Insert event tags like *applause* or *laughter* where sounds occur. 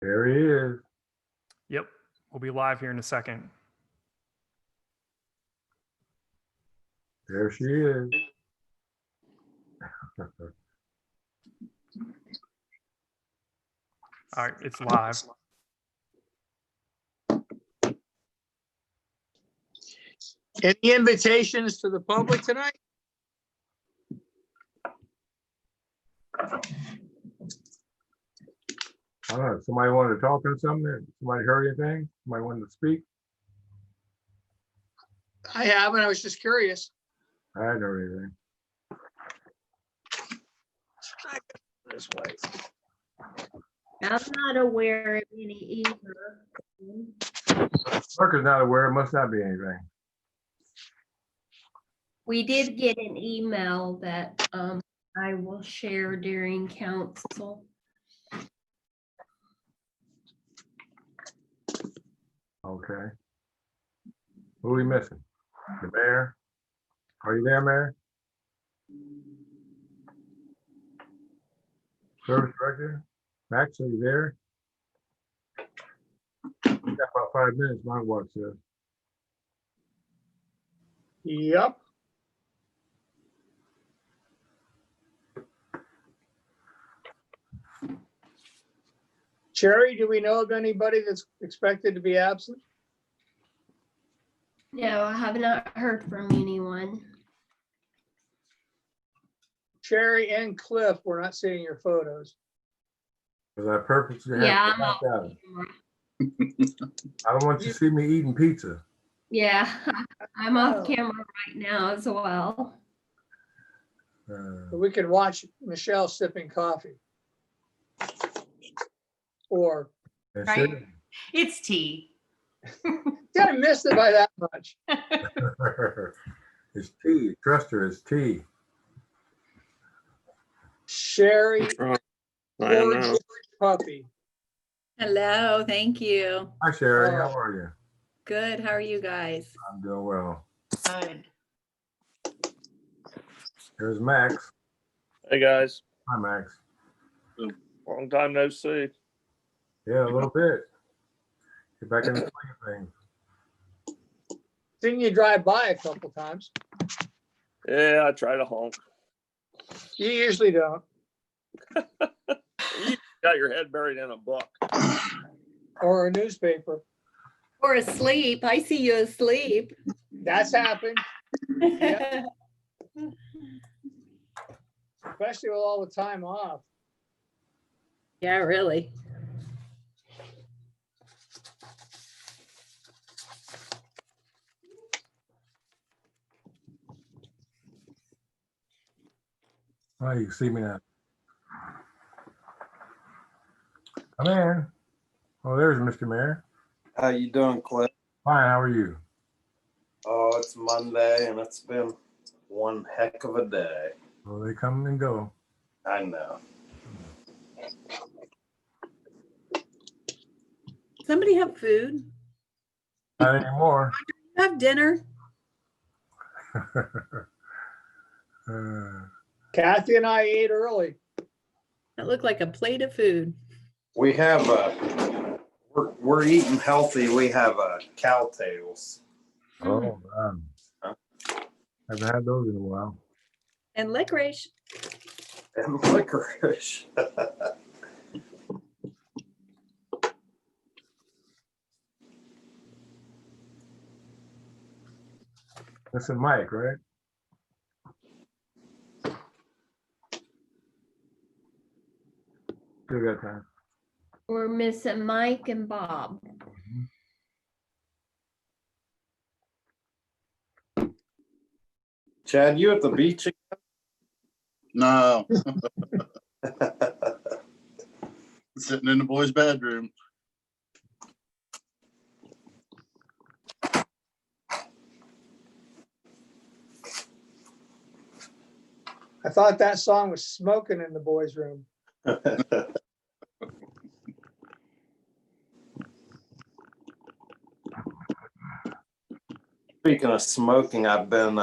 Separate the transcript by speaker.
Speaker 1: There he is.
Speaker 2: Yep. We'll be live here in a second.
Speaker 1: There she is.
Speaker 2: All right, it's live.
Speaker 3: Any invitations to the public tonight?
Speaker 1: I don't know. Somebody wanted to talk on something? Somebody heard anything? Somebody wanted to speak?
Speaker 3: I haven't, I was just curious.
Speaker 1: I hadn't heard anything.
Speaker 3: This way.
Speaker 4: I'm not aware of any either.
Speaker 1: Clerk is not aware. It must not be anything.
Speaker 4: We did get an email that um, I will share during council.
Speaker 1: Okay. Who are we missing? The mayor? Are you there, Mayor? Service Director? Max, are you there? We got about five minutes, my watch says.
Speaker 3: Yep. Cherry, do we know of anybody that's expected to be absent?
Speaker 4: No, I have not heard from anyone.
Speaker 3: Cherry and Cliff, we're not seeing your photos.
Speaker 1: Cause I purposely. have
Speaker 4: Yeah, I'm
Speaker 1: to
Speaker 4: off
Speaker 1: back out.
Speaker 4: camera.
Speaker 1: I don't want you to see me eating pizza.
Speaker 4: Yeah, *laughs* I'm off
Speaker 3: Oh.
Speaker 4: camera right now as well.
Speaker 1: Uh,
Speaker 3: But we could watch Michelle sipping coffee. Or,
Speaker 1: that's
Speaker 5: Right.
Speaker 1: it.
Speaker 5: It's tea.
Speaker 3: did I miss it by that much?
Speaker 1: *laughs* It's tea. Trust her, it's tea.
Speaker 3: Sherry
Speaker 6: Oh, I
Speaker 3: or
Speaker 6: don't know.
Speaker 3: George Puppy.
Speaker 7: Hello, thank you.
Speaker 1: Hi Sherry,
Speaker 5: Oh.
Speaker 1: how are you?
Speaker 7: Good, how are you guys?
Speaker 1: I'm doing well.
Speaker 5: Good.
Speaker 1: There's Max.
Speaker 6: Hey guys,
Speaker 1: Hi, Max.
Speaker 6: long time no see.
Speaker 1: Yeah, a little bit. Get back in the swing
Speaker 3: Seen you drive by a couple times.
Speaker 6: Yeah, I try to honk.
Speaker 3: You usually don't.
Speaker 6: Got your head buried in a book.
Speaker 3: Or a newspaper.
Speaker 7: Or asleep, I see you asleep.
Speaker 3: That's happened, Yeah. especially with all the time off.
Speaker 7: Yeah, really.
Speaker 1: thing. Oh, you can see me now. Come in. Oh, there's Mr. Mayor.
Speaker 8: How you doing, Cliff?
Speaker 1: Fine, how are you?
Speaker 8: Oh, it's Monday and it's been one heck of a day.
Speaker 1: Well, Oh, they come and go.
Speaker 8: I know.
Speaker 7: Somebody have food?
Speaker 1: Not anymore. *laughs*
Speaker 7: Have dinner?
Speaker 1: Uh,
Speaker 3: Kathy and I ate early.
Speaker 7: That looked like a plate of food.
Speaker 8: We have a we're, we're eating healthy. We have a cow tails.
Speaker 1: Oh, um, haven't had those in a while.
Speaker 7: And licorice.
Speaker 8: and *laughs* licorice.
Speaker 1: That's a Mike, right? Still got time.
Speaker 4: We're missing Mike and Bob.
Speaker 8: Chad, you at the beach?
Speaker 9: No,
Speaker 8: again?
Speaker 9: sitting in the boys' bedroom.
Speaker 3: I thought that song was smoking in the boys' room.
Speaker 8: Speaking of smoking, I've been